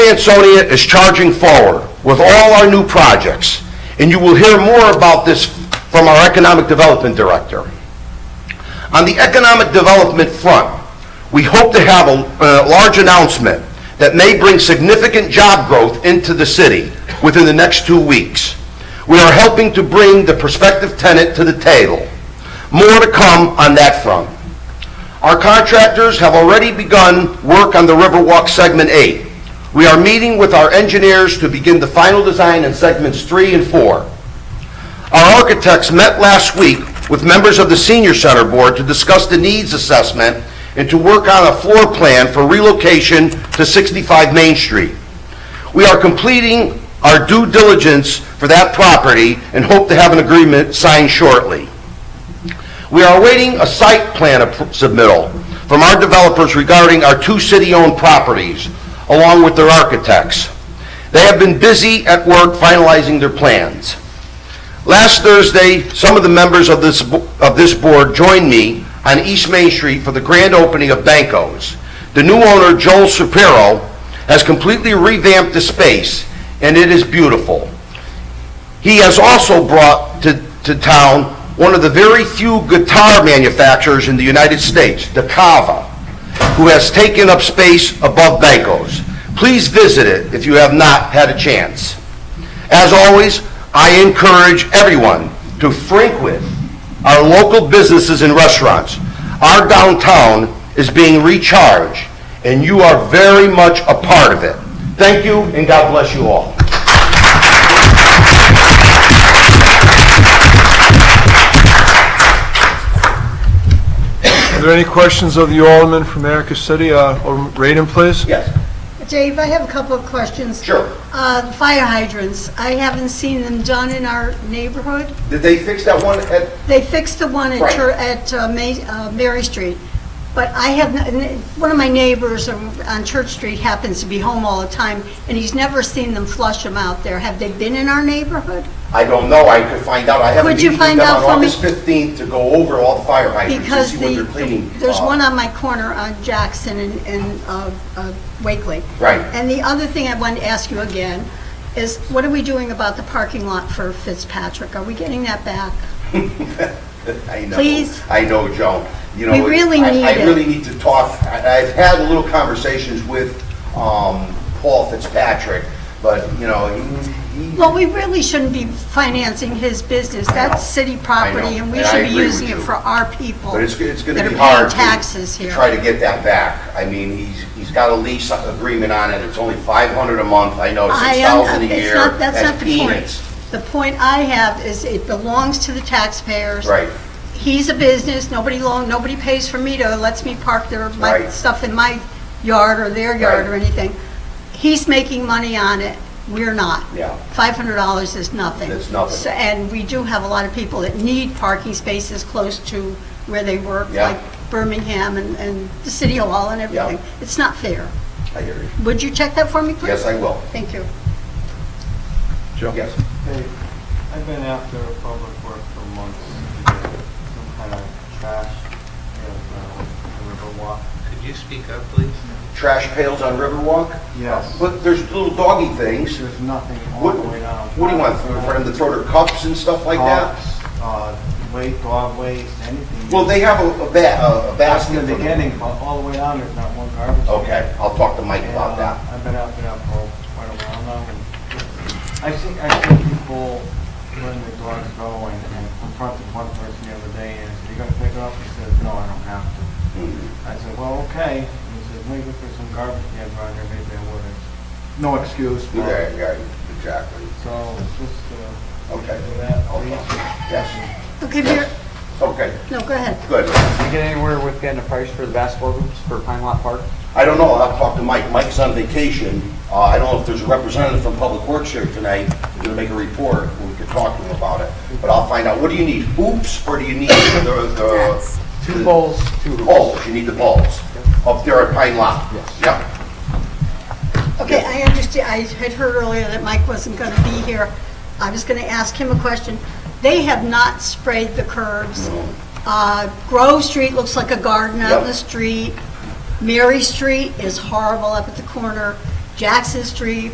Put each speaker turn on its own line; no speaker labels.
Ansonia is charging forward with all our new projects, and you will hear more about this from our Economic Development Director. On the economic development front, we hope to have a uh, large announcement that may bring significant job growth into the city within the next two weeks. We are helping to bring the prospective tenant to the table. More to come on that front. Our contractors have already begun work on the Riverwalk Segment 8. We are meeting with our engineers to begin the final design in Segments 3 and 4. Our architects met last week with members of the Senior Center Board to discuss the needs assessment and to work on a floor plan for relocation to 65 Main Street. We are completing our due diligence for that property and hope to have an agreement signed shortly. We are awaiting a site plan appro- submittal from our developers regarding our two city-owned properties, along with their architects. They have been busy at work finalizing their plans. Last Thursday, some of the members of this, bo- of this board joined me on East Main Street for the grand opening of Banco's. The new owner, Joel Shapiro, has completely revamped the space, and it is beautiful. He has also brought to, to town one of the very few guitar manufacturers in the United States, DeCava, who has taken up space above Banco's. Please visit it if you have not had a chance. As always, I encourage everyone to frequent our local businesses and restaurants. Our downtown is being recharged, and you are very much a part of it. Thank you, and God bless you all.
Are there any questions of the Alderman from Erica City? Uh, Alderman Raiden, please?
Yes,
Dave, I have a couple of questions.
Sure.
Uh, Fire hydrants, I haven't seen them done in our neighborhood.
did they fix that one at
They fixed the one at
Right.
Chur- at uh, Ma- uh, Mary Street, but I have, n- n- one of my neighbors on on Church Street happens to be home all the time, and he's never seen them flush them out there. Have they been in our neighborhood?
I don't know, I could find out, I have a
Would you
meeting with
find
them
out
on
for me?
August 15th to go over all the fire hydrants and
Because
see what
the,
they're cleaning.
there's
Uh,
one on my corner on Jackson and, and uh, uh, Wakely.
Right.
And the other thing I wanted to ask you again is, what are we doing about the parking lot for Fitzpatrick? Are we getting that back?
I know.
Please?
I know, Joan. You know,
We really
I-
need
I
it.
really need to talk, I- I've had little conversations with um, Paul Fitzpatrick, but, you know, he- he...
Well, we really shouldn't be financing his business. That's city property, and we
and I
should be
agree with
using it
you.
for our people.
But it's, it's gonna be
That are
hard.
paying
to-
taxes here.
To try to get that back. I mean, he's, he's got a lease agreement on it, it's only 500 a month, I know,
I
6,000 a
am, it's
year.
not, that's not the
peanuts.
point. The point I have is it belongs to the taxpayers.
Right.
He's a business, nobody loan, nobody pays for me to, lets me park their, my
Right.
stuff in my yard or their yard or
Right.
anything. He's making money on it, we're not.
Yeah.
Five hundred dollars is nothing.
It's nothing.
So- And we do have a lot of people that need parking spaces close to where they work,
Yeah.
like Birmingham and, and the City Hall and
Yeah.
everything. It's not fair.
I hear you.
Would you check that for me, please?
Yes, I will.
Thank you.
Joe?
Yes.
Hey, I've been after public work for months, to get some kind of trash, and, uh, river walk.
Could you speak up, please?
Trash pails on Riverwalk?
Yes.
But there's little doggy things.
There's nothing all
What,
the way down.
what do you want, for them to throw their cups and stuff like that?
Cups, Uh, waste, dog waste, anything.
Well, they have a, a ba, a
That's
basket.
in the
for them.
beginning, but all the way down, there's not one garbage. can.
Okay, I'll talk to Mike
And,
about
uh,
that.
I've been after that for quite a while now, and I think, I see people letting their dogs go, and and confronted one person the other day, and I said, you gonna pick it up? He says, no, I don't have to.
Mm-hmm.
I said, well, okay. He says, maybe if there's some garbage cans around here, maybe I would. No excuse. but-
Yeah, yeah, exactly.
So, it's just, uh.
Okay.
do that,
Okay.
please.
Yes,
Okay, Vera,
okay,
no, go ahead.
good.
Did you get anywhere with getting a price for the basketball hoops for Pine Lot Park?
I don't know, I'll talk to Mike. Mike's on vacation. Uh, I don't know if there's a representative from Public Works here tonight. We're gonna make a report, and we could talk to him about it. But I'll find out, what do you need, hoops, or do you need the, the?
Two bowls, two hoops.
Poles, you need the poles, up there at Pine Lot.
Yes.
Yep.
Okay, I understand, I had heard earlier that Mike wasn't going to be here. I was going to ask him a question. They have not sprayed the curbs. Uh, Grove Street looks like a garden out in the
Yep.
street. Mary Street is horrible up at the corner. Jackson Street,